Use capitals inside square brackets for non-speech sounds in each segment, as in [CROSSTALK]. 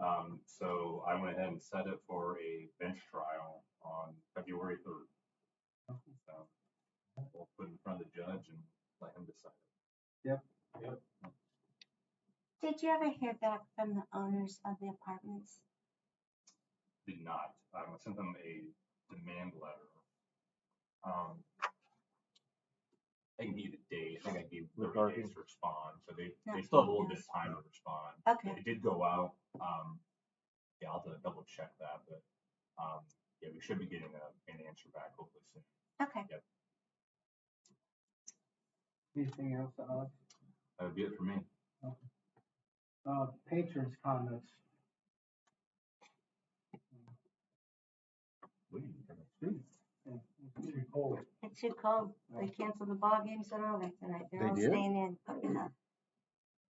Um, so I went ahead and set it for a bench trial on February third. So we'll put it in front of the judge and let him decide. Did you ever hear back from the owners of the apartments? Did not, um, I sent them a demand letter. Um, I need a day, I think I gave thirty days to respond, so they, they Not still have a little bit yes. of time to respond. Okay, It did go out, um, yeah, I'll have to double check that, but, um, yeah, we should be getting a, an answer back hopefully soon. okay. Anything else, Alex? Uh, That would be it for me. Uh, patrons comments. Report. It's too cold. They canceled the ball games and all that tonight. They're They all did? staying in. Oh, yeah.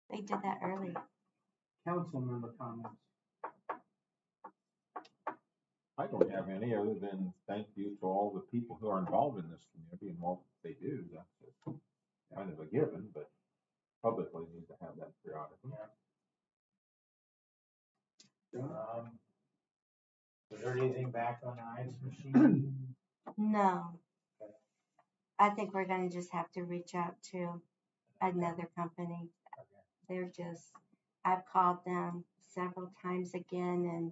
They did that early. Council member comments. I don't have any other than thank you to all the people who are involved in this community and what they do. That's a- kind of a given, but publicly need to have that periodically. Um, Was there anything back on the ice [CLEARS THROAT] machine? No. I think we're gonna just have to reach out to another company. They're just, I've called them several times again and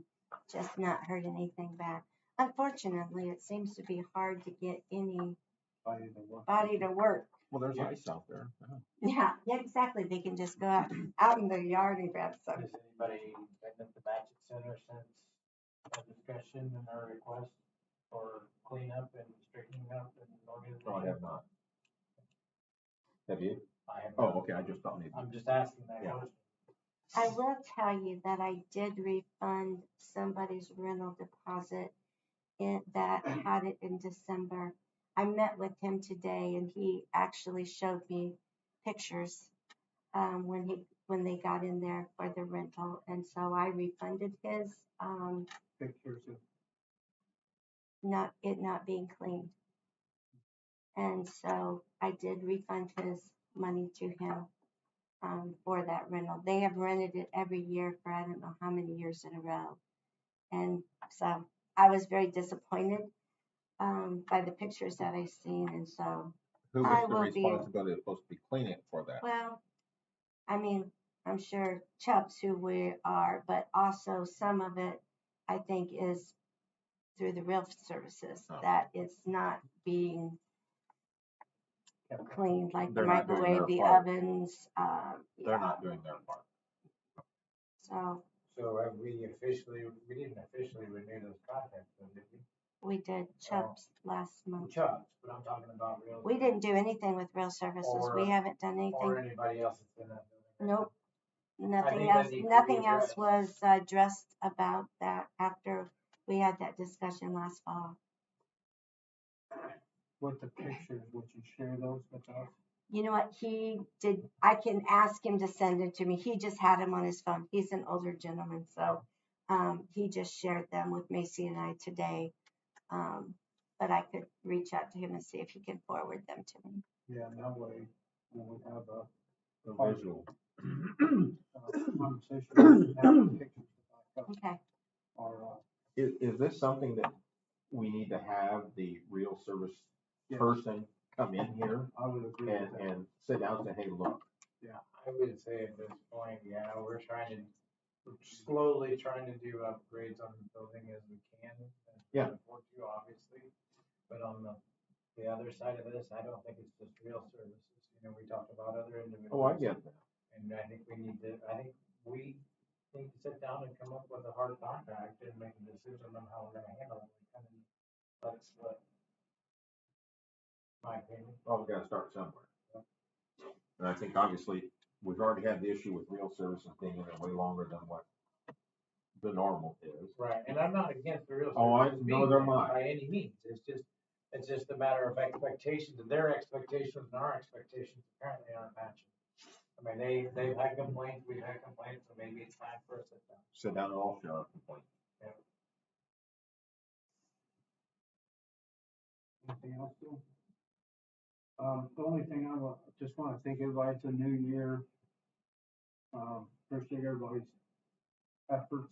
just not heard anything back. Unfortunately, it seems to be hard to get anybody Body to work. to work. Well, there's Yeah. ice out there. Yeah, yeah, exactly. They can just go out, out in their yard and grab some. Has anybody been at the Magic Center since our discussion and our request for cleanup and straightening up and organization? No, I have not. Have you? I have Oh, not. okay, I just don't need. I'm just asking that Yeah. question. I will tell you that I did refund somebody's rental deposit in, that had it in December. I met with him today and he actually showed me pictures um, when he when they got in there for the rental, and so I refunded his um, Pictures of not it not being cleaned, and so I did refund his money to him um, for that rental. They have rented it every year for I don't know how many years in a row. And so I was very disappointed um, by the pictures that I seen. And so, Who I was the will be- responsibility that's supposed to be cleaning it for that? well, I mean, I'm sure Chubbs, who we are, but also some of it, I think, is through the real services Oh. that it's not being Kept cleaned, like the They're not doing microwave, their the part. ovens. Um, They're yeah. not doing their part. So So have we officially, we didn't officially renew those contracts, so did we? we did Oh. Chubbs last month. Chubbs, but I'm talking about real. Um, We didn't do anything with real services. We Or- haven't done Or anything. anybody else that's in that building. Nope. Nothing think that else, needs to be nothing else addressed. was addressed about that after we had that discussion last fall. what the pictures, would you share those with us? You know what? He did, I can ask him to send it to me. He just had him on his phone. He's an older gentleman, so um, he just shared them with Macy and I today. Um, but I could reach out to him and see if he can forward them to me. Yeah, and that way we would have a The Part- visual. [COUGHS] uh, conversation, and have the pictures to back up Okay. our, uh, Is, is this something that we need to have the real service Yes. person come in here I would agree and, with that. and sit down and say, hey, look, I would say at this point, yeah, we're trying to, we're slowly trying to do upgrades on the building as we can. as we Yeah. afford to, Obviously, but on the, the other side of this, I don't think it's just real services, you know, we talked about other individuals. oh, I get that. And I think we need to, I think we need to sit down and come up with a hard contract and make a decision on how we're gonna handle it. And That's what, my opinion. Well, we've got to start somewhere. And I think obviously, we've already had the issue with real services being in there way longer than what the normal is. Right, and I'm not against the real. Oh, I- no, services being they're there mine. By any means, it's just, it's just a matter of expectations, and their expectations and our expectations apparently aren't matching. I mean, they, they've had complaints, we've had complaints, so maybe it's time for us to. Sit down and all share our complaints. Anything else, Bill? Um, the only thing I wa- just wanna thank everybody, it's a new year. Um, appreciate everybody's efforts